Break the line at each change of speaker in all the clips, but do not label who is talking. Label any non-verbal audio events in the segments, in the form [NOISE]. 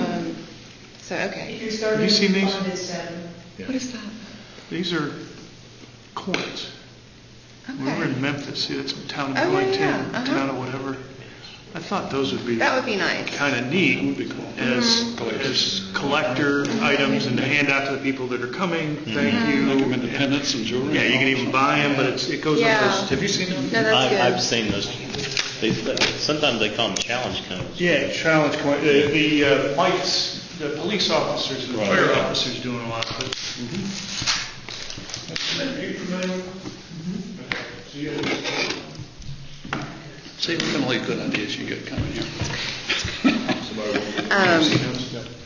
Um, So, okay.
If you're starting
you seen these?
on this, um,
What is that?
These are coins. We were in
Okay.
Memphis, see, that's a town
Oh,
of
yeah,
like town,
yeah, uh-huh.
town or whatever. I thought those would be
That Mm-hmm. would be nice.
kind of neat as, as collector items and to hand out to the people that are coming, thank
Mm-hmm.
you.
Make them independents and jewelry.
Yeah, you can even buy them, but it's, it goes on
Yeah.
those. Have you seen them?
No,
I've, I've
that's good.
seen those, they, sometimes they call them challenge cones.
Yeah, challenge coin, uh, the uh, lights, the police officers and
Right,
fire
yeah.
officers doing a lot of it. Are you familiar? Okay, so you have-
See, we can leave good ideas you get coming here.
Um,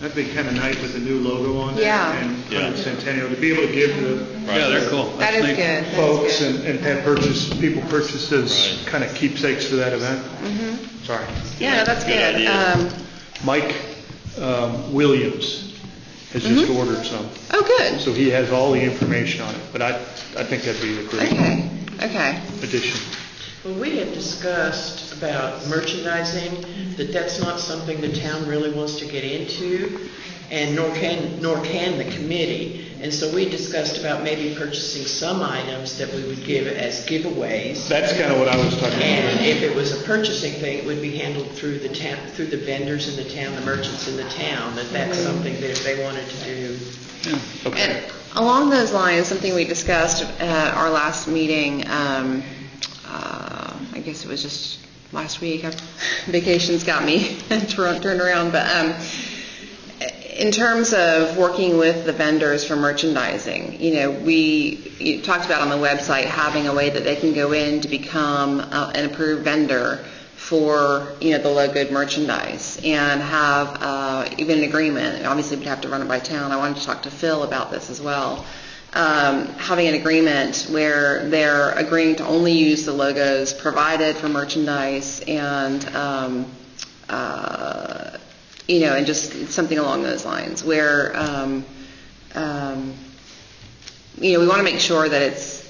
That'd be kind of nice with the new logo on there.
Yeah.
And
Yeah.
100th Centennial, to be able to give the
Right.
Yeah, they're cool.
That
That's
is
neat.
good.
folks
That's good.
and and have purchase, people purchase as
Right.
kind of keepsakes for that event. Sorry.
Mm-hmm. Yeah, no, that's
Good
good.
idea.
Um,
Mike um, Williams has just ordered some,
oh, good.
so he has all the information on it, but I, I think that'd be a great
Okay, okay.
addition.
Well, we have discussed about merchandising, that that's not something the town really wants to get into, and nor can, nor can the committee. And so we discussed about maybe purchasing some items that we would give as giveaways.
That's kind of what I was talking about.
And if it was a purchasing thing, it would be handled through the town, through the vendors in the town, the merchants in the town, that that's
Mm-hmm.
something that if they wanted to do.
Okay.
And along those lines, something we discussed at our last meeting, um, uh, I guess it was just last week, I've- vacations got me [LAUGHS] turn- turned around, but um, in terms of working with the vendors for merchandising, you know, we you talked about on the website having a way that they can go in to become uh, an approved vendor for, you know, the low good merchandise and have uh, even an agreement. Obviously, we'd have to run it by town. I wanted to talk to Phil about this as well. Um, Having an agreement where they're agreeing to only use the logos provided for merchandise and, um, uh, you know, and just something along those lines where, um, um, you know, we want to make sure that it's,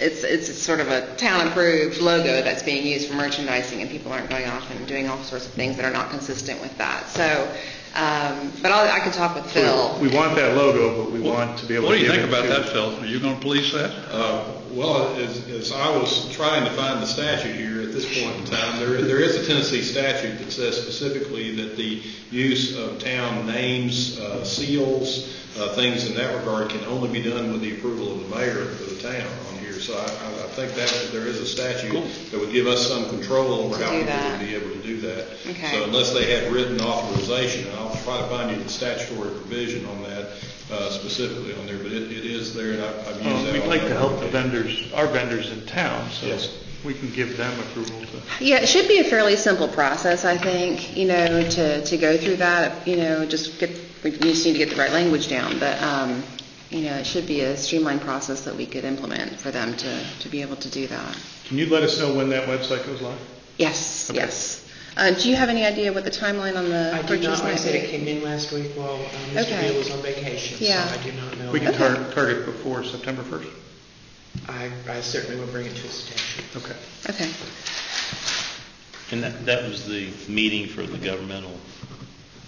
it's, it's sort of a town-approved logo that's being used for merchandising, and people aren't going off and doing all sorts of things that are not consistent with that. So, um, but I'll, I can talk with Phil.
We want that logo, but we want to be able to
What do you
give
think
it
about
to-
that, Phil? Are you going to police that?
Uh, Well, as, as I was trying to find the statute here at this point in time, there, there is a Tennessee statute that says specifically that the use of town names, uh, seals, uh, things in that regard can only be done with the approval of the mayor of the town on here. So I, I I think that there is a statute that would give us some control over
To
how
do
people
that.
would be able to do that.
Okay.
So unless they have written authorization, and I'll try to find you the statutory provision on that uh, specifically on there, but it, it is there and I've I've used that.
Uh, We'd
on
like to
other
help the
occasions.
vendors, our vendors in town, so
Yes.
we can give them approval to,
Yeah, it should be a fairly simple process, I think, you know, to, to go through that, you know, just get, we just need to get the right language down, but, um, you know, it should be a streamlined process that we could implement for them to, to be able to do that.
can you let us know when that website goes live?
Yes, yes. Uh, Do you have any idea what the timeline on the
I do
Uh, purchase
not, I
might
said it
be?
came in last week while uh, Mr.
Okay.
Beal was on vacation, so
Yeah.
I do not know.
We can
Okay.
tar- target before September 1st?
I I certainly will bring it to his attention.
Okay.
Okay.
And that, that was the meeting for the governmental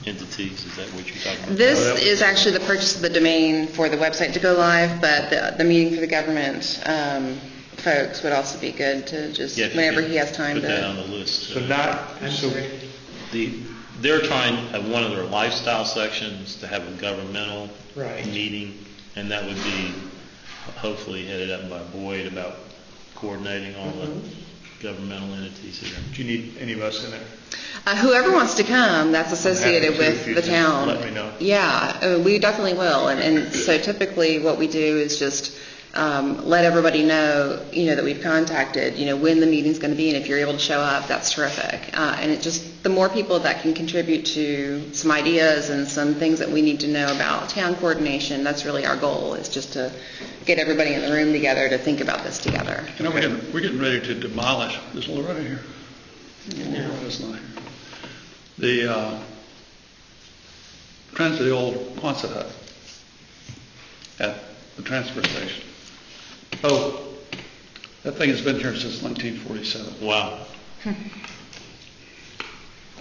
entities, is that what you're talking about?
This
Oh, that was-
is actually the purchase of the domain for the website to go live, but the, the meeting for the government um, folks would also be good to just,
Yeah, if you
whenever
could
he has time
Put that
to.
on the list.
So not,
I'm
so
sorry.
The, they're trying, at one of their lifestyle sections, to have a governmental
Right.
meeting, and that would be hopefully headed up by Boyd about coordinating all the
Mm-hmm.
governmental entities here.
do you need any of us in there?
Uh, Whoever wants to come, that's associated
to
with
if you
the
just
town.
let me know.
Yeah, uh, we definitely will. And, and so typically what we do is just um, let everybody know, you know, that we've contacted, you know, when the meeting's going to be and if you're able to show up, that's terrific. Uh, and it just, the more people that can contribute to some ideas and some things that we need to know about town coordination, that's really our goal is just to get everybody in the room together to think about this together.
You know, we're getting, we're getting ready to demolish, is Loretta here? Loretta's not here. The, uh, trans, the old Quonset hut at the transfer station. Oh, that thing has been here since 1947.
Wow.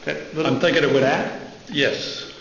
That little-
I'm thinking it would.
That?
Yes.